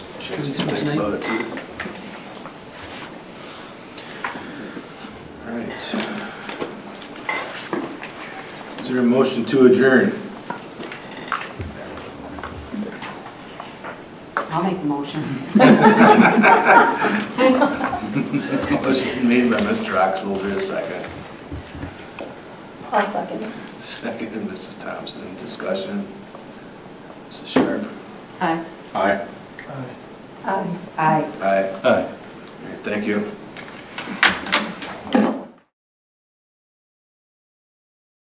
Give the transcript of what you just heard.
Can we switch Think name? about it, too. All right. Is there a motion to adjourn? I'll make the motion. Motion made by Mr. Oxel, is there a second? I'll second. Second, and Mrs. Thompson, discussion. Mrs. Sharp? Aye. Aye. Aye. Aye. Aye. All Aye. right, Thank you.